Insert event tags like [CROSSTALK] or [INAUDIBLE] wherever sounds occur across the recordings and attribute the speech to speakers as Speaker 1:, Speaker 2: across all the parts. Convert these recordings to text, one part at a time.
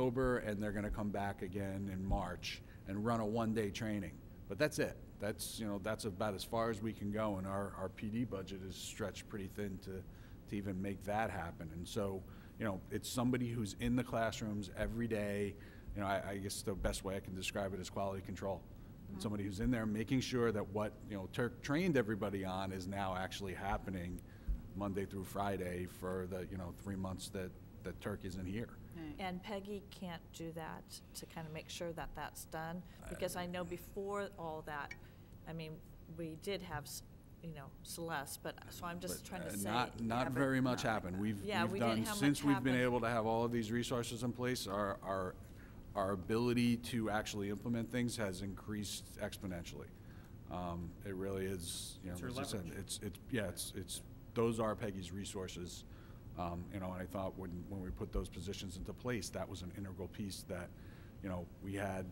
Speaker 1: October, and they're going to come back again in March and run a one-day training. But that's it. That's, you know, that's about as far as we can go, and our, our PD budget is stretched pretty thin to, to even make that happen. And so, you know, it's somebody who's in the classrooms every day. You know, I, I guess the best way I can describe it is quality control. And Somebody who's in there making sure that what, you know, Turk trained everybody on is now actually happening Monday through Friday for the, you know, three months that, that Turk isn't here.
Speaker 2: And Peggy can't do that to kind of make sure that that's done, because I know before all that, I mean, we did have, s- you know, Celeste, but, so I'm just
Speaker 1: But,
Speaker 2: trying
Speaker 1: uh,
Speaker 2: to say.
Speaker 1: Not, not very much happened. We've,
Speaker 2: Yeah,
Speaker 1: we've
Speaker 2: we didn't
Speaker 1: done,
Speaker 2: have much
Speaker 1: since we've been
Speaker 2: happen.
Speaker 1: able to have all of these resources in place, our, our, our ability to actually implement things has increased exponentially. Um, It really is, you know,
Speaker 3: It's your
Speaker 1: as I said,
Speaker 3: leverage.
Speaker 1: it's, it's, yeah, it's, it's, those are Peggy's resources. Um, You know, and I thought when, when we put those positions into place, that was an integral piece that, you know, we had,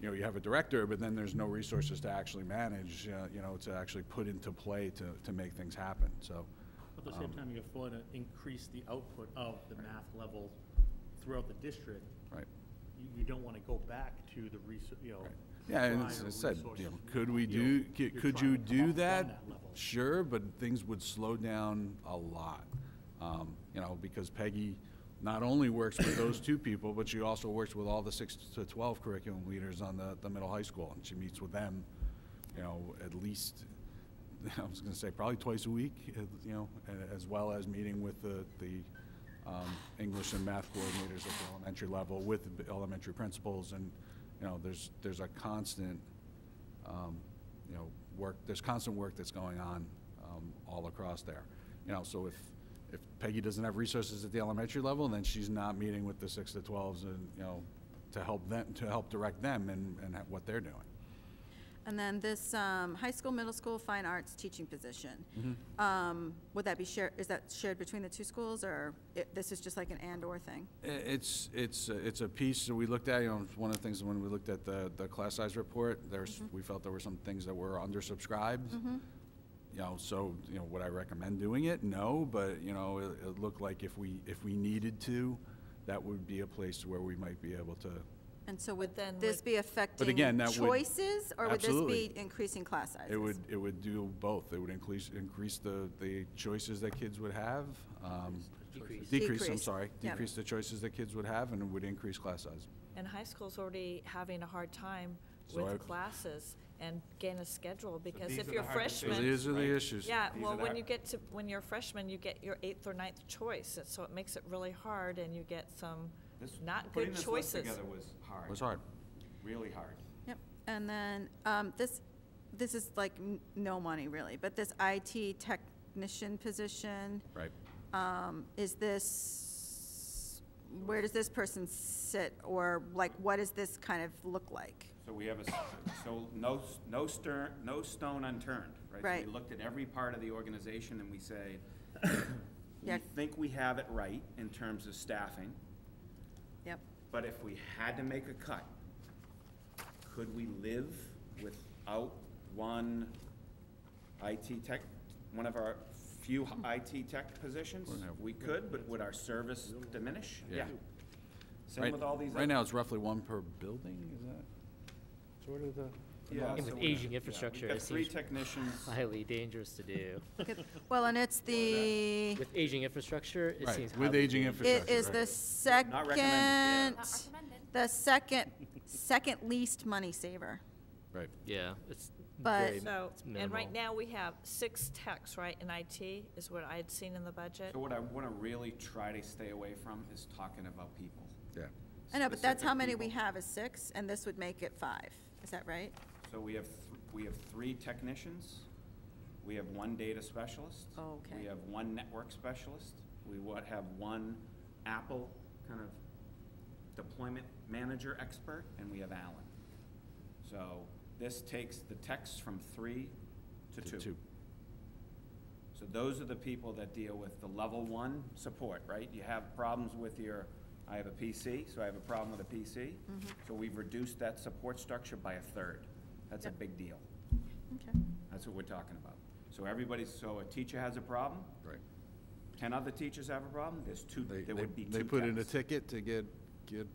Speaker 1: you know, you have a director, but then there's no resources to actually manage, uh, you know, to actually put into play to, to make things happen, so.
Speaker 3: At the same
Speaker 1: Um,
Speaker 3: time, you afford to increase the output of the math level throughout the district.
Speaker 1: Right.
Speaker 3: You, you don't want to go back to the research, you know.
Speaker 1: Yeah, and as
Speaker 3: prior
Speaker 1: I said, you
Speaker 3: resources.
Speaker 1: know, could we
Speaker 3: You're-
Speaker 1: do, c-
Speaker 3: you're
Speaker 1: could
Speaker 3: trying
Speaker 1: you
Speaker 3: to come up
Speaker 1: do
Speaker 3: from
Speaker 1: that?
Speaker 3: level.
Speaker 1: Sure, but things would slow down a lot. Um, You know, because Peggy not only works with those two people, but she also works with all the six to 12 curriculum leaders on the, the middle high school. And she meets with them, you know, at least, [LAUGHS] I was gonna say probably twice a week, uh, you know, a- as well as meeting with the, the um, English and math coordinators at the elementary level with the elementary principals. And, you know, there's, there's a constant, um, you know, work, there's constant work that's going on um, all across there. You know, so if, if Peggy doesn't have resources at the elementary level, then she's not meeting with the six to twelves and, you know, to help them, to help direct them and, and what they're doing.
Speaker 4: And then this um, high school, middle school, fine arts teaching position.
Speaker 1: Mm-hmm.
Speaker 4: Um, Would that be shared, is that shared between the two schools, or it- this is just like an and/or thing?
Speaker 1: I- It's, it's, a- it's a piece that we looked at, you know, it's one of the things when we looked at the, the class size report, there's, we felt there were some things that were undersubscribed.
Speaker 4: Mm-hmm.
Speaker 2: Mm-hmm.
Speaker 1: You know, so, you know, would I recommend doing it? No, but, you know, it, it looked like if we, if we needed to, that would be a place where we might be able to.
Speaker 4: And so would
Speaker 2: then
Speaker 4: this
Speaker 2: would-
Speaker 4: be affecting
Speaker 1: again, that would-
Speaker 4: choices, or would this
Speaker 1: Absolutely.
Speaker 4: be increasing class sizes?
Speaker 1: It would, it would do both. It would increase, increase the, the choices that kids would have. um,
Speaker 3: Decrease.
Speaker 1: Decrease, I'm
Speaker 4: Decrease,
Speaker 1: sorry,
Speaker 4: yeah.
Speaker 1: decrease the choices that kids would have and it would increase class size.
Speaker 2: And high school's already having a hard time
Speaker 1: So I-
Speaker 2: with classes and getting a schedule, because
Speaker 5: these are
Speaker 2: if
Speaker 5: the
Speaker 2: you're
Speaker 5: hard
Speaker 1: So
Speaker 2: freshman.
Speaker 5: decisions,
Speaker 1: these are
Speaker 5: right?
Speaker 1: the issues.
Speaker 2: Yeah,
Speaker 5: These
Speaker 2: well,
Speaker 5: are the
Speaker 2: when
Speaker 5: hard-
Speaker 2: you get to, when you're a freshman, you get your eighth or ninth choice, and so it makes it really hard, and you get some
Speaker 5: This-
Speaker 2: not good choices.
Speaker 5: Putting this list together was hard.
Speaker 1: It was hard.
Speaker 5: Really hard.
Speaker 4: Yep, and then, um, this, this is like n- no money really, but this IT technician position,
Speaker 1: Right.
Speaker 4: um, is this, where does this person sit, or like, what does this kind of look like?
Speaker 5: So we have a, s- so no, s- no stern, no stone unturned, right? So
Speaker 4: Right.
Speaker 5: We looked at every part of the organization and
Speaker 2: [COUGHS]
Speaker 5: we say, we
Speaker 4: Yeah.
Speaker 5: think we have it right in terms of staffing,
Speaker 4: Yep,
Speaker 5: but if we had to make a cut, could we live without one IT tech, one of our few h- IT tech positions?
Speaker 1: We're gonna have-
Speaker 5: We could, but would our service diminish?
Speaker 1: Yeah.
Speaker 5: Same
Speaker 1: Right-
Speaker 5: with all these.
Speaker 1: Right
Speaker 5: other-
Speaker 1: now, it's roughly one per building, is that?
Speaker 3: Sort of the.
Speaker 5: Yeah,
Speaker 6: And
Speaker 5: so
Speaker 6: with
Speaker 5: we-
Speaker 6: aging
Speaker 5: yeah,
Speaker 6: infrastructure,
Speaker 5: We've got
Speaker 6: it
Speaker 5: three
Speaker 6: seems
Speaker 5: technicians,
Speaker 6: highly dangerous to do.
Speaker 4: Good. well, and it's the,
Speaker 6: With aging infrastructure, it
Speaker 1: Right,
Speaker 6: seems highly.
Speaker 1: with aging
Speaker 6: dangerous.
Speaker 4: it
Speaker 1: infrastructure.
Speaker 4: is the
Speaker 5: Not recommended, yeah.
Speaker 4: second, the second, second least money saver.
Speaker 1: Right.
Speaker 6: Yeah, it's
Speaker 4: But-
Speaker 6: very,
Speaker 2: So,
Speaker 6: it's
Speaker 2: and right
Speaker 6: minimal.
Speaker 2: now, we have six techs, right, in IT, is what I had seen in the budget.
Speaker 5: so what I want to really try to stay away from is talking about people.
Speaker 1: Yeah.
Speaker 4: I know, but that's how
Speaker 5: specific
Speaker 4: many we
Speaker 5: people.
Speaker 4: have is six, and this would make it five, is that right?
Speaker 5: So we have, th- we have three technicians, we have one data specialist.
Speaker 4: Oh, okay.
Speaker 5: We have one network specialist, we what, have one Apple kind of deployment manager expert, and we have Alan. So this takes the techs from three to
Speaker 1: To
Speaker 5: two. So those are the people that deal with the level one support, right? You have problems with your, I have a PC, so I have a problem with a PC.
Speaker 4: Mm-hmm.
Speaker 5: So we've reduced that support structure by a third. That's a
Speaker 4: Yep.
Speaker 5: big deal.
Speaker 4: Okay.
Speaker 5: That's what we're talking about. So everybody's, so a teacher has a problem,
Speaker 1: Right.
Speaker 5: ten other teachers have a problem, there's two,
Speaker 1: They,
Speaker 5: there would be
Speaker 1: they,
Speaker 5: two
Speaker 1: they put in a
Speaker 5: techs.
Speaker 1: ticket to get, get